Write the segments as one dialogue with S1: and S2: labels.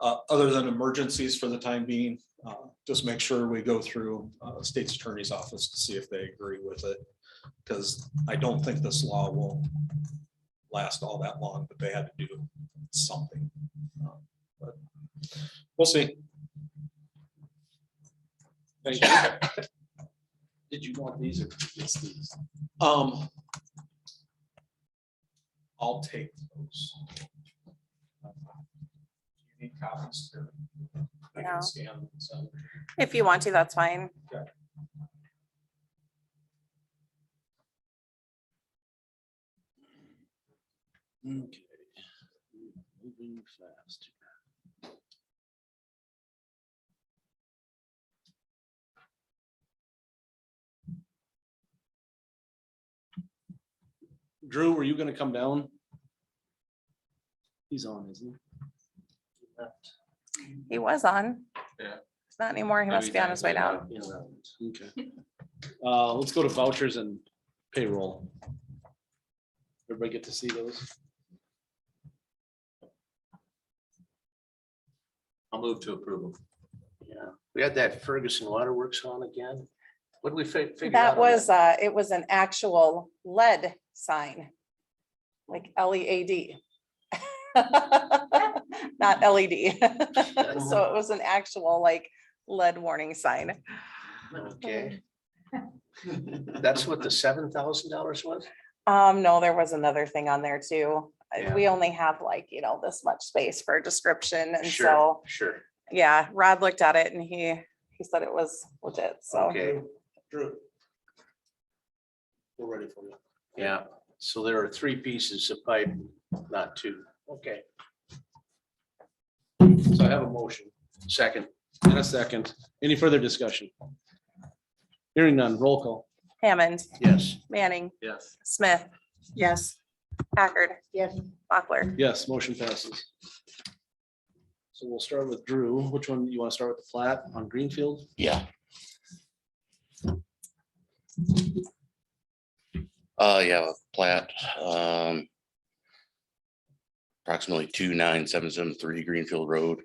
S1: uh, other than emergencies for the time being, uh, just make sure we go through uh, state's attorney's office to see if they agree with it. Because I don't think this law will last all that long, but they had to do something. Uh, But we'll see.
S2: Thank you. Did you want these or just these?
S1: Um. I'll take those. You Need copies too? I
S3: No.
S1: can scan some.
S3: If you want to, that's fine.
S2: Okay. Moving fast. Drew, were you gonna come down? He's on, isn't
S3: He was on.
S4: Yeah.
S3: Not anymore. He must be on his way down.
S2: he? Okay. Uh, let's go to vouchers and payroll. Everybody get to see those?
S4: I'll move to approval.
S5: Yeah, we had that Ferguson Waterworks on again. What did we fi- figure? out
S3: That
S5: on
S3: was, uh, it was an actual lead sign. Like L E A D. Not LED. So it was an actual like lead warning sign.
S5: Okay. Hmm. That's what the seven thousand dollars was?
S3: Um, no, there was another thing on there too. Uh,
S5: Yeah.
S3: We only have like, you know, this much space for a description and
S5: Sure,
S3: so,
S5: Sure,
S3: yeah, Rod looked at it and he, he said it was legit, so.
S5: okay,
S2: Drew. We're ready for you.
S5: yeah. So there are three pieces of pipe, not two. Okay,
S2: So I have a motion
S5: second,
S2: and a second. Any further discussion? Hearing none, roll call.
S3: Hammond,
S5: yes.
S3: Manning,
S4: Yes.
S3: Smith. Yes. Packard. Yes. Mochler.
S2: Yes, motion passes. So we'll start with Drew. Which one, you want to start with the flat on Greenfield?
S6: Yeah. Uh, yeah, with plat, um. Approximately two nine seven seven three Greenfield Road,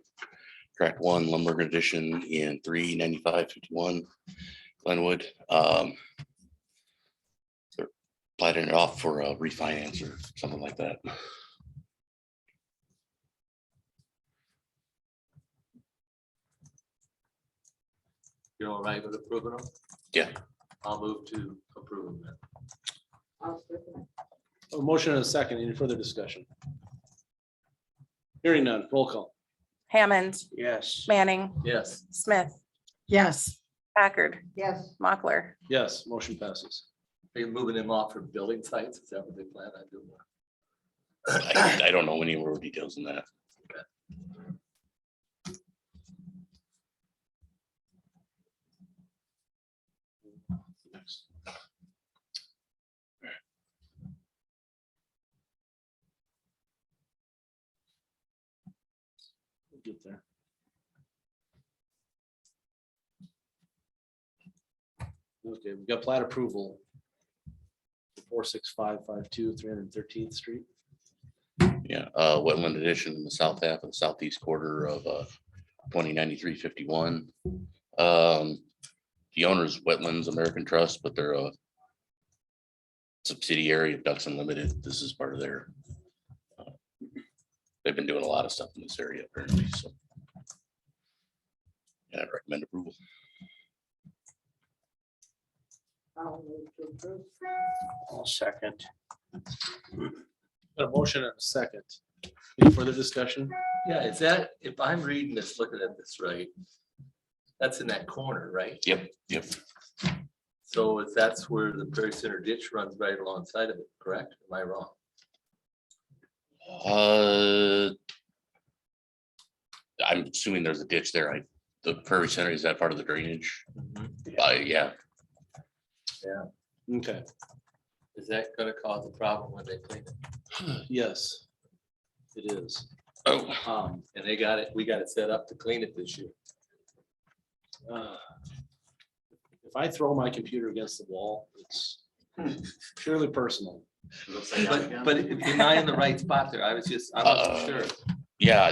S6: track one Lumberg addition in three ninety-five fifty-one Glenwood, um. they're Plating it off for a refinance or something like that.
S4: You're all right with approving them?
S6: Yeah.
S4: I'll move to approve them. then.
S2: A motion and a second. Any further discussion? Hearing none, roll call.
S3: Hammond,
S5: Yes,
S3: Manning,
S4: Yes.
S3: Smith. Yes. Packard. Yes. Mochler.
S2: Yes, motion passes.
S4: Are you moving them off for building sites? Is that what they plan on doing?
S6: I, I don't know any more details than that.
S2: We'll Get there. Okay, we've got plat approval. Four, six, five, five, two, three hundred thirteenth street.
S6: Yeah, uh, wetland addition in the south half of the southeast quarter of, uh, twenty ninety-three fifty-one. Um, the owner's Wetlands American Trust, but they're a subsidiary of Ducks Unlimited. This is part of their. uh, They've been doing a lot of stuff in this area apparently, so. And I recommend approval.
S5: I'll second,
S2: Got a motion and a second. Any further discussion?
S4: Yeah, is that, if I'm reading this, looking at this right, that's in that corner, right?
S6: Yep, yep,
S4: So if that's where the Prairie Center ditch runs right alongside of it, correct? Am I wrong?
S6: uh. I'm assuming there's a ditch there. I, the Prairie Center, is that part of the drainage? Uh, yeah,
S2: Okay,
S4: Is that gonna cause a problem when they clean it?
S2: yes. It is.
S6: oh.
S2: Um,
S4: And they got it, we got it set up to clean it this year.
S2: uh, If I throw my computer against the wall, it's purely personal.
S4: But, but am I in the right spot there? I was just, I wasn't
S6: Uh,
S4: sure.
S6: Yeah,